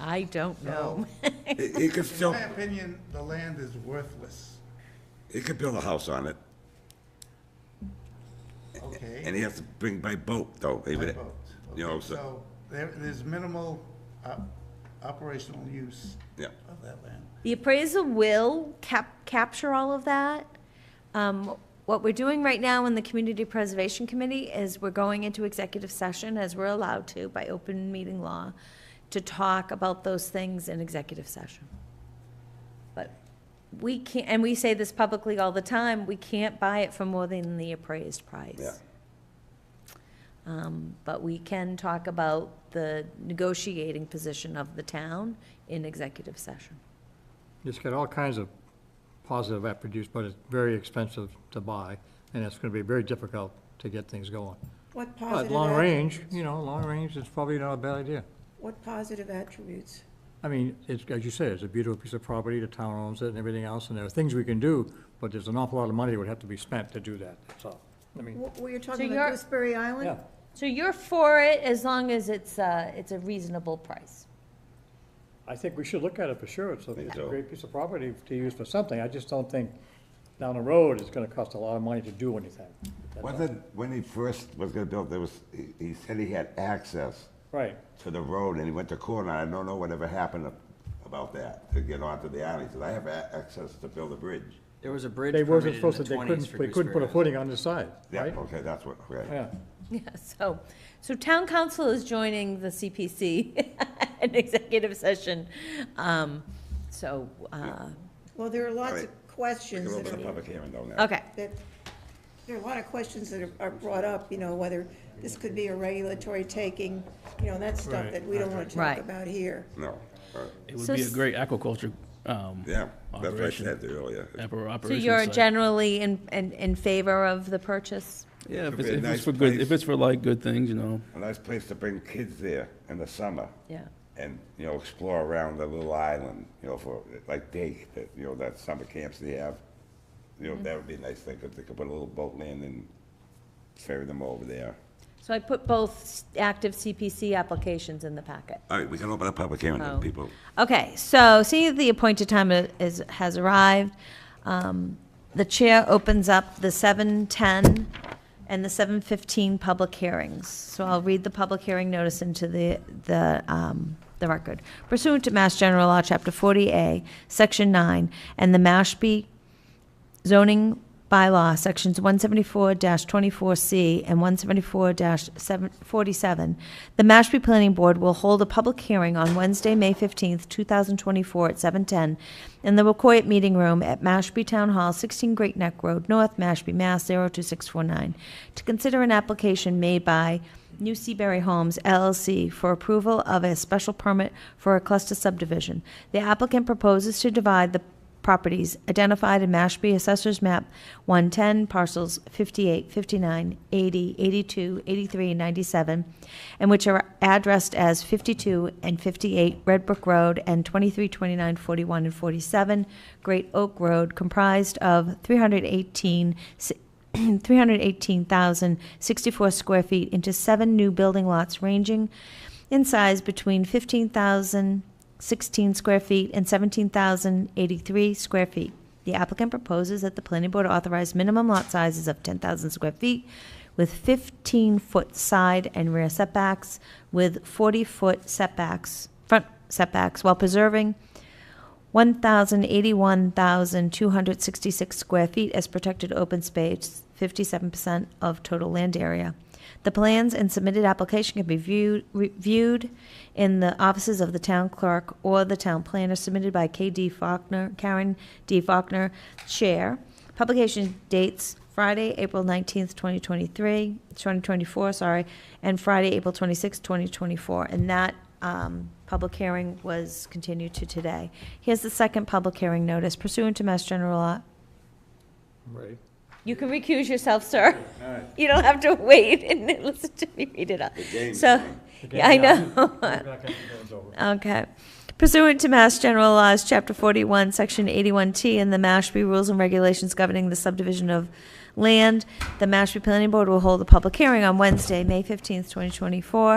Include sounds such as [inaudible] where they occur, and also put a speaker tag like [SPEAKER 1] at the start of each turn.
[SPEAKER 1] I don't know. [laughs]
[SPEAKER 2] It it could
[SPEAKER 3] In
[SPEAKER 2] still,
[SPEAKER 3] my opinion, the land is worthless,
[SPEAKER 2] it could build a house on it, and
[SPEAKER 3] okay?
[SPEAKER 2] he has to bring by boat, though. They
[SPEAKER 3] By
[SPEAKER 2] would-
[SPEAKER 3] boat.
[SPEAKER 2] You know,
[SPEAKER 3] Okay,
[SPEAKER 2] so,
[SPEAKER 3] So there, there's minimal op- operational use
[SPEAKER 2] yeah.
[SPEAKER 3] of that land.
[SPEAKER 1] The appraisal will cap, capture all of that. Um, what we're doing right now in the Community Preservation Committee is we're going into executive session, as we're allowed to by open meeting law, to talk about those things in executive session. But we can't, and we say this publicly all the time, we can't buy it for more than the appraised price.
[SPEAKER 2] Yeah.
[SPEAKER 1] Um, but we can talk about the negotiating position of the town in executive session.
[SPEAKER 4] It's got all kinds of positive attributes, but it's very expensive to buy, and it's gonna be very difficult to get things going. But
[SPEAKER 5] What positive?
[SPEAKER 4] long
[SPEAKER 5] attri-
[SPEAKER 4] range, you know, long range is probably not a bad idea.
[SPEAKER 5] What positive attributes?
[SPEAKER 4] I mean, it's, as you said, it's a beautiful piece of property, the town owns it and everything else, and there are things we can do, but there's an awful lot of money that would have to be spent to do that, that's all. I mean,
[SPEAKER 5] Were you talking
[SPEAKER 1] you're-
[SPEAKER 5] about Gooseberry Island?
[SPEAKER 4] yeah,
[SPEAKER 1] So you're for it as long as it's, uh, it's a reasonable price? [laughs]
[SPEAKER 4] I think we should look at it for sure, it's a,
[SPEAKER 2] Me
[SPEAKER 4] it's a
[SPEAKER 2] too.
[SPEAKER 4] great piece of property to use for something, I just don't think down the road, it's gonna cost a lot of money to do anything. That's all.
[SPEAKER 2] Wasn't, when he first was gonna build, there was, he- he said he had access
[SPEAKER 4] Right.
[SPEAKER 2] to the road, and he went to court, and I don't know whatever happened about that, to get onto the island. He said, I have a- access to build a bridge.
[SPEAKER 6] There was a bridge
[SPEAKER 4] They
[SPEAKER 6] permitted
[SPEAKER 4] wasn't
[SPEAKER 6] in the
[SPEAKER 4] supposed to, they
[SPEAKER 6] twenties
[SPEAKER 4] couldn't,
[SPEAKER 6] for
[SPEAKER 4] they couldn't put a
[SPEAKER 6] Gooseberry
[SPEAKER 4] footing on the side,
[SPEAKER 2] Yeah,
[SPEAKER 4] right?
[SPEAKER 2] okay, that's what, okay.
[SPEAKER 4] Yeah,
[SPEAKER 1] Yeah, so, so town council is joining the CPC [laughs] in executive session. Um, so, uh,
[SPEAKER 5] Well, there are lots
[SPEAKER 2] Alright.
[SPEAKER 5] of questions
[SPEAKER 2] We'll
[SPEAKER 5] that
[SPEAKER 2] open a
[SPEAKER 5] are,
[SPEAKER 2] public hearing though now.
[SPEAKER 1] okay,
[SPEAKER 5] that, there are a lot of questions that are- are brought up, you know, whether this could be a regulatory taking, you know, that's stuff
[SPEAKER 4] Right.
[SPEAKER 5] that we don't want to talk
[SPEAKER 1] Right.
[SPEAKER 5] about here.
[SPEAKER 2] No, all right.
[SPEAKER 7] It would
[SPEAKER 1] So
[SPEAKER 7] be a
[SPEAKER 1] s-
[SPEAKER 7] great aquaculture. Um,
[SPEAKER 2] yeah, that's what I
[SPEAKER 7] Operation.
[SPEAKER 2] said earlier.
[SPEAKER 7] appar-
[SPEAKER 1] so
[SPEAKER 7] Operation
[SPEAKER 1] you're
[SPEAKER 7] site.
[SPEAKER 1] generally in, in, in favor of the purchase?
[SPEAKER 7] yeah, if
[SPEAKER 2] Could
[SPEAKER 7] it's,
[SPEAKER 2] be a
[SPEAKER 7] if
[SPEAKER 2] nice
[SPEAKER 7] it's for good,
[SPEAKER 2] place.
[SPEAKER 7] if it's for like good things, you know.
[SPEAKER 2] A nice place to bring kids there in the summer.
[SPEAKER 1] Yeah.
[SPEAKER 2] and, you know, explore around the little island, you know, for, like day, that, you know, that summer camps they have. You
[SPEAKER 1] Mm-hmm.
[SPEAKER 2] know, that would be a nice thing, because they could put a little boat land and ferry them over there.
[SPEAKER 1] So I put both s- active CPC applications in the packet.
[SPEAKER 2] All right, we can open a public hearing,
[SPEAKER 1] then, Oh.
[SPEAKER 2] people.
[SPEAKER 1] Okay, so seeing that the appointed time i- is, has arrived, um, the chair opens up the 7:10 and the 7:15 public hearings. So I'll read the public hearing notice into the, the, um, the record. Pursuant to Mass General Law, Chapter 40A, Section 9, and the Mashpee zoning bylaw, sections one seventy-four twenty-four C and one seventy-four 47 the Mashpee Planning Board will hold a public hearing on Wednesday, May fifteenth, two thousand twenty-four at seven ten in the Wacoit Meeting Room at Mashpee Town Hall, sixteen Great Neck Road, North Mashpee, Mass. zero two six four nine, to consider an application made by New Seaberry Homes LLC for approval of a special permit for a cluster subdivision. The applicant proposes to divide the properties identified in Mashpee Assessor's Map 110, parcels 58, 59, 80, 82, 83, and 97, and which are addressed as 52 and 58 Red Brook Road and 23, 29, 41, and 47 Great Oak Road, comprised of 318, [clears throat] si- 318,064 square feet into seven new building lots ranging in size between 15,000 16 square feet and 17,083 square feet. The applicant proposes that the planning board authorize minimum lot sizes of 10,000 square feet with 15-foot side and rear setbacks, with 40-foot setbacks, front setbacks, while preserving 1,081,266 square feet as protected open space, 57% of total land area. The plans and submitted application can be viewed, reviewed in the offices of the town clerk or the town planner submitted by K.D. Faulkner, Karen D. Faulkner, Chair. Publication dates Friday, April 19th, 2023, 2024, sorry, and Friday, April 26th, 2024. And that um, public hearing was continued to today. Here's the second public hearing notice pursuant to Mass General Law.
[SPEAKER 4] right.
[SPEAKER 1] You can recuse yourself, sir. You don't have to wait and then listen to me read it up.
[SPEAKER 2] game's
[SPEAKER 1] So,
[SPEAKER 2] on.
[SPEAKER 1] yeah, I know. [laughs] Okay. Pursuant to Mass General Laws, Chapter 41, Section 81T, and the Mashpee Rules and Regulations governing the subdivision of land, the Mashpee Planning Board will hold a public hearing on Wednesday, May 15th, 2024,